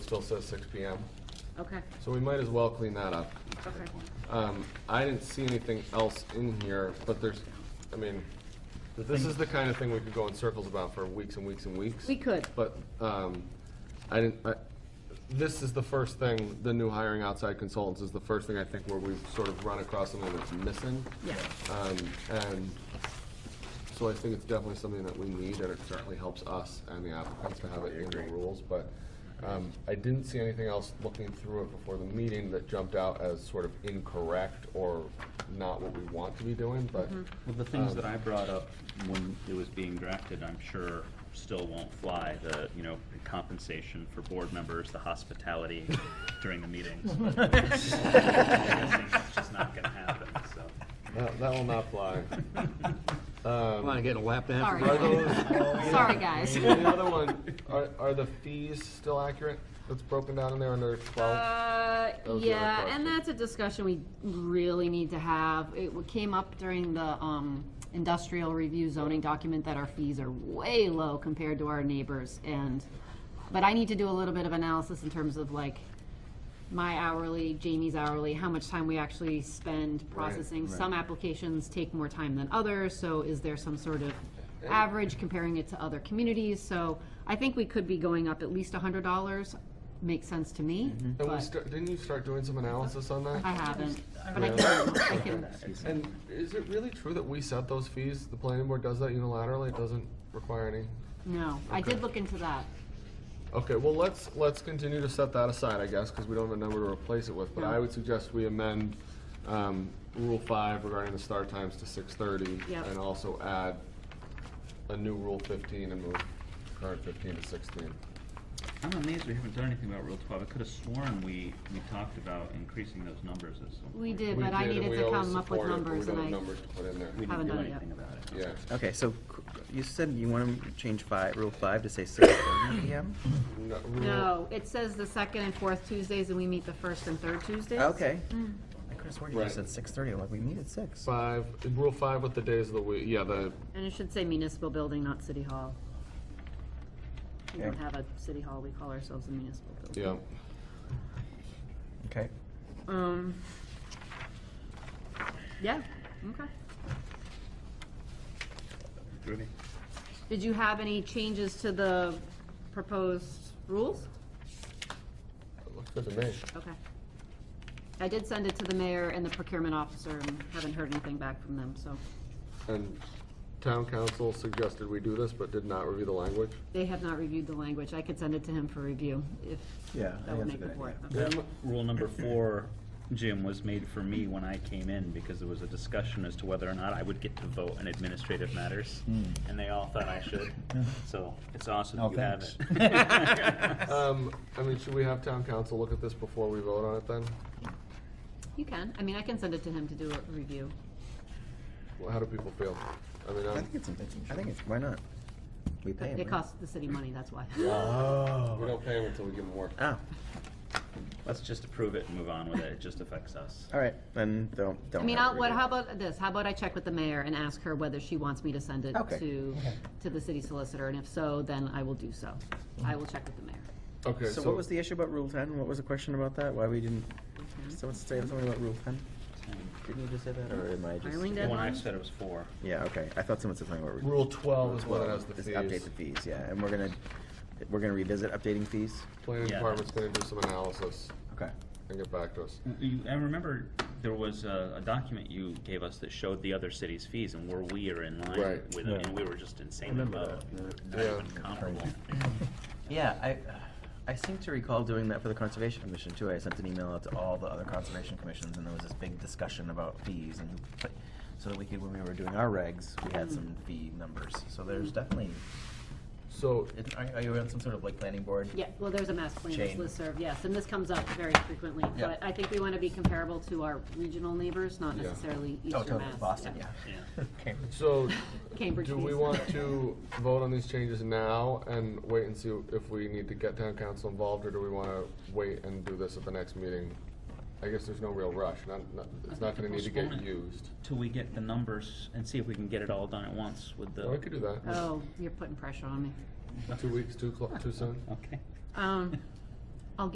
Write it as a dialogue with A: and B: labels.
A: still says six P M.
B: Okay,
A: So we might as well clean that up.
B: okay.
A: Um, I didn't see anything else in here, but there's, I mean, this is the kind of thing we could go in circles about for weeks and weeks and weeks.
B: We could.
A: But, um, I didn't, I, this is the first thing, the new hiring outside consultants is the first thing I think where we've sort of run across something that's missing.
B: Yeah.
A: Um, and so I think it's definitely something that we need, and it certainly helps us and the applicants to have it in the rules, but, um, I didn't see anything else looking through it before the meeting that jumped out as sort of incorrect or not what we want to be doing, but,
B: Mm-hmm.
C: Well, the things that I brought up when it was being drafted, I'm sure still won't fly, the, you know, compensation for board members, the hospitality during the meetings. I'm guessing It's just not gonna happen, so.
A: that, that will not fly.
D: Come on, get a lap dance.
B: Sorry.
A: Are those-
B: Sorry, guys.
A: And the other one, are, are the fees still accurate? That's broken down in there under twelve?
B: Uh,
A: That was the other
B: yeah,
A: question.
B: and that's a discussion we really need to have. It w- came up during the, um, industrial review zoning document that our fees are way low compared to our neighbors and, but I need to do a little bit of analysis in terms of like my hourly, Jamie's hourly, how much time we actually spend processing. Some applications take more time than others, so is there some sort of average comparing it to other communities? So I think we could be going up at least a hundred dollars, makes sense to me,
A: And we
B: but
A: start, didn't you start doing some analysis on that?
B: I haven't. But I can, I can,
A: And is it really true that we set those fees? The planning board does that unilaterally? It doesn't require any?
B: no, I did look into that.
A: Okay, well, let's, let's continue to set that aside, I guess, because we don't have a number to replace it with. But I would suggest we amend, um, Rule Five regarding the start times to six thirty.
B: Yep.
A: And also add a new Rule fifteen and move current fifteen to sixteen.
C: I'm amazed we haven't done anything about Rule twelve. I could have sworn we, we talked about increasing those numbers at some point.
B: We did,
A: We
B: but I
A: did, and
B: needed
A: we
B: to
A: always
B: come up with
A: support it, but We don't
B: numbers
A: have
B: and I,
A: numbers to put in there.
C: We
B: Haven't
C: didn't do
B: done it yet.
C: anything about it.
A: Yeah,
E: Okay, so c- you said you want to change five, rule five to say six thirty PM?
A: No, Rule-
B: no, it says the second and fourth Tuesdays and we meet the first and third Tuesdays.
E: Okay.
B: Mm.
E: I could have sworn you
A: Right.
E: just said six thirty, like, we meet at six.
A: Five, Rule Five with the days of the week, yeah, the,
B: And it should say municipal building, not city hall. We don't
E: Okay.
B: have a city hall, we call ourselves a municipal building.
A: yeah.
E: Okay.
B: Um, yeah, okay.
C: Groovy.
B: Did you have any changes to the proposed rules?
A: Looks good to me.
B: Okay. I did send it to the mayor and the procurement officer and haven't heard anything back from them, so
A: And town council suggested we do this, but did not review the language.
B: they have not reviewed the language. I could send it to him for review if
E: Yeah, I
B: that would make
E: think that's a
B: the
E: good
B: board.
E: idea.
B: okay.
C: That rule number four, Jim, was made for me when I came in because there was a discussion as to whether or not I would get to vote on administrative matters, and they all thought I should. So it's awesome
E: No,
C: you have
E: thanks.
C: it.
A: Um, I mean, should we have town council look at this before we vote on it then?
B: You can, I mean, I can send it to him to do a review.
A: Well, How do people feel? I mean,
E: I
A: I'm,
E: think it's, I think it's, why not? We pay
B: It
E: 'em, right?
B: costs the city money, that's why.
A: we
E: Oh.
A: don't pay them until we give them work.
E: Ah,
C: Let's just approve it and move on with it. It just affects us.
E: all right, then don't, don't.
B: I mean,
E: have
B: I'll,
E: it
B: what,
E: reviewed.
B: how about this? How about I check with the mayor and ask her whether she wants me to send it
E: Okay.
B: to, to the city solicitor, and if so, then I will do so. I will check with the mayor.
A: Okay,
E: So what was the issue about rule ten? What was the question about that? Why we didn't, someone say something about rule ten? Didn't you just say that, or am I just?
B: Filing
C: The one I
B: deadline?
C: said it was four.
E: Yeah, okay, I thought someone said something about.
A: Rule twelve is what has the
E: Just update
A: fees.
E: the fees, yeah, and we're gonna, we're gonna revisit updating fees?
A: Planning
C: Yeah.
A: department's gonna do some analysis
E: Okay.
A: and get back to us.
C: You, I remember there was a, a document you gave us that showed the other cities' fees and where we are in line
A: Right.
C: with it, and we were just insanely low. Not
A: Yeah.
C: even comparable.
E: Yeah, I, I seem to recall doing that for the Conservation Commission too. I sent an email out to all the other Conservation Commissions and there was this big discussion about fees and, but, so that we could, when we were doing our regs, we had some fee numbers. So there's definitely,
A: So,
E: it- are, are you on some sort of like planning board?
B: Yeah, well, there's a mass plan
E: Jane.
B: listserv, yes, and this comes up very frequently,
E: Yeah.
B: but I think we wanna be comparable to our regional neighbors, not
A: Yeah.
B: necessarily
E: Oh,
B: Eastern
E: totally,
B: Mass.
E: Boston, yeah.
C: Yeah.
E: Okay.
A: so,
B: Cambridge
A: do we
B: fees.
A: want to vote on these changes now and wait and see if we need to get town council involved, or do we wanna wait and do this at the next meeting? I guess there's no real rush, not, not, it's not gonna need to get
C: Postpone it.
A: used.
C: Till we get the numbers and see if we can get it all done at once with the.
A: Well, we could do that.
B: Oh, you're putting pressure on me.
A: Two weeks, too clo- too soon?
C: Okay.
B: Um,